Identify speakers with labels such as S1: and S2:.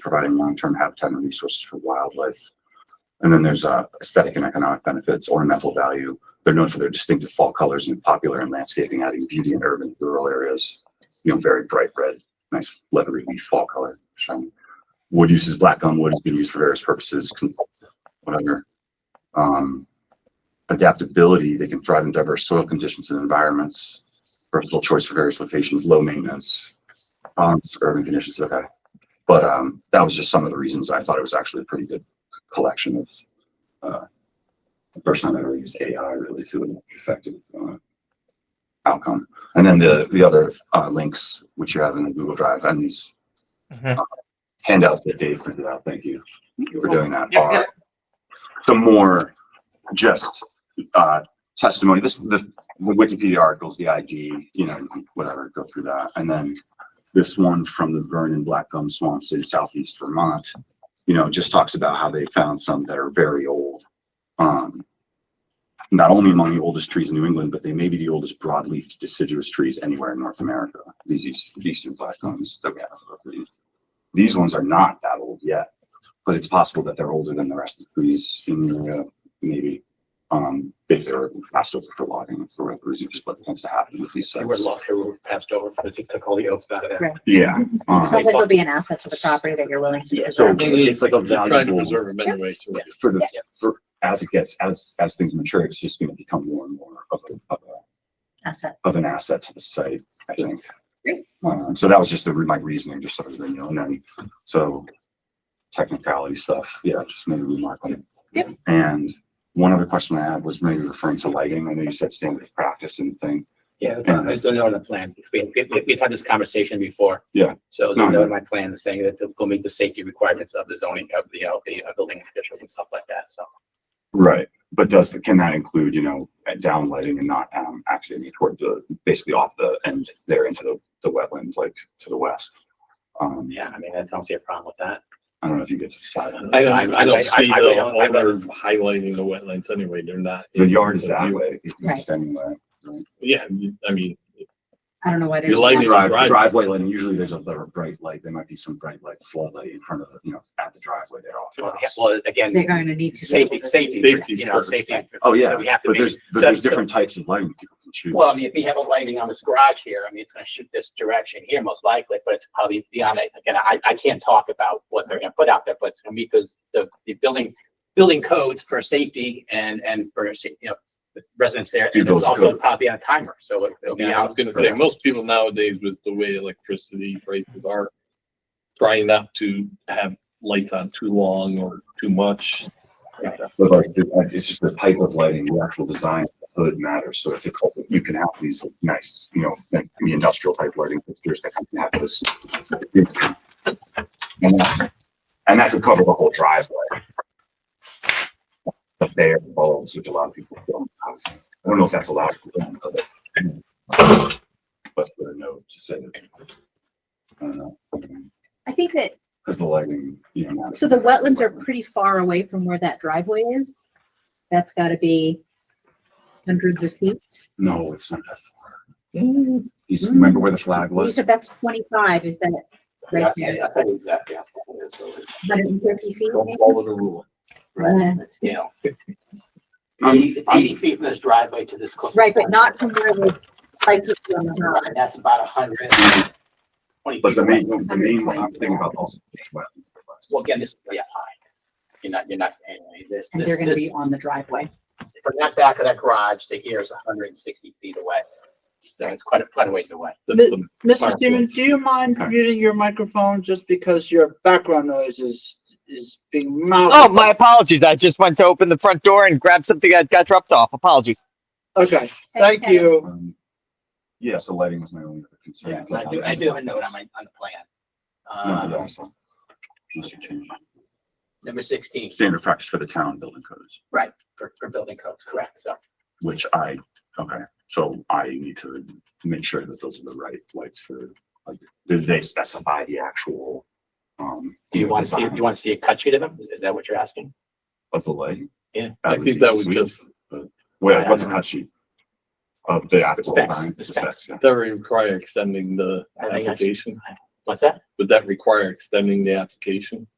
S1: providing long-term habitat and resources for wildlife. And then there's uh, aesthetic and economic benefits, ornamental value. They're known for their distinctive fall colors and popular in landscaping, adding beauty in urban rural areas. You know, very bright red, nice leathery leaf fall color. shiny. Wood uses black gum wood has been used for various purposes, con- whatever. Um, adaptability, they can thrive in diverse soil conditions and environments. Versatile choice for various locations, low maintenance, um, urban conditions, okay. But um, that was just some of the reasons I thought it was actually a pretty good collection of. Uh, the first time I ever used AI really to an effective uh, outcome. And then the the other uh, links which you have in the Google Drive and these
S2: Mhm.
S1: uh, handouts that Dave printed out. Thank you for doing that.
S2: Yeah, yeah.
S1: Are the more just uh, testimony. This the, the Wikipedia articles, the IG, you know, whatever. Go through that, and then this one from the Vernon Black Gum Swamps in southeast Vermont, you know, just talks about how they found some that are very old. Um, not only among the oldest trees in New England, but they may be the oldest broadleaf deciduous trees anywhere in North America. These east- eastern black gums that we have. are pretty- These ones are not that old yet, but it's possible that they're older than the rest of the trees in the area, maybe. Um, if they're passed over for logging for whatever reason, just what tends to happen with these
S2: They were
S1: sites.
S2: lost, they were passed over because they took all the oaks out of there.
S3: Right.
S1: Yeah. um,
S3: Sounds like it'll be an asset to the property that you're willing to.
S1: So
S3: preserve.
S1: it's like a
S4: Trying to
S1: valuable,
S4: preserve them anyway, so we
S1: for the, for, as it gets, as, as things mature, it's just gonna become more and more of a, of a,
S3: Asset.
S1: of an asset to the site, I think.
S3: Great.
S1: Um, so that was just the, re- my reasoning, just sort of, you know, and then, so technicality stuff, yeah, just maybe remark on it.
S3: Yep.
S1: And one other question I had was maybe referring to lighting, I know you said standard of practice and things.
S2: Yeah, it's a note in the plan. We, we, we've had this conversation before.
S1: Yeah.
S2: So it's
S1: No,
S2: a
S1: no.
S2: note in my plan is saying that they'll meet the safety requirements of the zoning, of the, of the uh, building officials and stuff like that, so.
S1: Right, but does, the can that include, you know, downlighting and not, um, actually toward the, basically off the end there into the, the wetlands, like to the west? Um,
S2: Yeah, I mean, I don't see a problem with that.
S1: I don't know if you get to decide on
S4: I
S1: that.
S4: don't, I
S2: I- I-
S4: don't see
S2: I- I-
S4: the
S2: I-
S4: owner highlighting the wetlands anyway, they're not.
S1: The yard is that
S4: in-
S1: way. it's
S3: Right.
S1: standing way. Right.
S4: Yeah, you- I mean,
S3: I don't know why they.
S4: Your lighting-
S1: Drive,
S4: Driveway.
S1: driveway lighting, usually there's a little bright light, there might be some bright light floodlight in front of, the you know, at the driveway there off. the
S2: Well, yeah,
S1: house.
S2: Well, again.
S3: They're going to need. to be
S2: Safety,
S3: able to-
S2: safety,
S4: Safety's
S2: you know,
S4: first.
S2: safety.
S1: Oh, yeah,
S2: We have to
S1: but
S2: be,
S1: there's, but there's different types of lighting people can choose.
S2: well, I mean, if we have a lighting on this garage here, I mean, it's gonna shoot this direction here most likely, but it's probably beyond it. Again, I, I can't talk about what they're gonna put out there, but it's gonna meet those, the, the building, building codes for safety and, and for, sa- you know, the residents there.
S1: Do
S2: And it's
S1: those
S2: also
S1: codes.
S2: probably on a timer, so it- it'll be
S4: yeah, I was
S2: out.
S4: gonna say, most people nowadays with the way electricity prices are trying not to have lights on too long or too much.
S1: But like, the- uh, it's just the type of lighting, the actual design of the hood matters. So if it's, you can have these nice, you know, like the industrial type lighting fixtures that can have this. And that- and that could cover the whole driveway. But they are bulbs, which a lot of people don't have. I don't know if that's allowed. to do on other- But for a note to say that. I don't know.
S3: I think that,
S1: Cause the lighting, you know. matters.
S3: so the wetlands are pretty far away from where that driveway is. That's gotta be hundreds of feet.
S1: No, it's not that far.
S3: You
S1: You
S2: Mm-hmm.
S1: remember where the flag was?
S3: said that's twenty-five, is that right
S2: Yeah,
S3: there?
S2: yeah, I believe that, yeah. It's
S3: Hundred and fifty feet?
S4: Don't follow the rule.
S3: maybe? Uh,
S2: You know,
S1: I'm-
S2: eighty, it's eighty feet from this driveway to this close.
S3: Right, but not from where the lights are on the
S2: And
S3: house.
S2: that's about a hundred. Twenty.
S1: But the
S2: feet away.
S1: main, the main one I'm thinking about also. is wetlands.
S2: Well, again, this is really high. You're not, you're not, anyway, this,
S3: And
S2: this,
S3: they're gonna
S2: this,
S3: be on the driveway.
S2: from that back of that garage to here is hundred and sixty feet away. So it's quite a, quite a ways away.
S4: That's the-
S5: Mr.
S4: Microphone.
S5: Stevens, do you mind
S1: Okay.
S5: muting your microphone just because your background noise is, is being mounted?
S6: Oh, my apologies. I just went to open the front door and grab something that got dropped off. Apologies.
S5: Okay, thank you.
S1: Um, Yeah, so lighting was my only other
S2: Yeah,
S1: concern.
S2: I do, I do have a note on my, on the plan.
S1: No, but
S2: Uh,
S1: also, just to change.
S2: number sixteen,
S1: Standard practice for the town building codes,
S2: for, for building codes, correct, so.
S1: which I, okay, so I need to make sure that those are the right lights for, like, did they specify the actual? um,
S2: Do you want to see,
S1: design
S2: you want to see a cut sheet of them? Is that what you're asking?
S1: Of the lighting?
S2: Yeah.
S4: I think that would
S1: be
S4: just,
S1: Well, what's a cut sheet? Of uh, the actual
S2: Specs,
S1: design?
S2: the specs.
S1: yeah.
S4: that would require extending the
S2: I think I should-
S4: application.
S2: What's that?
S4: Would that require extending the application?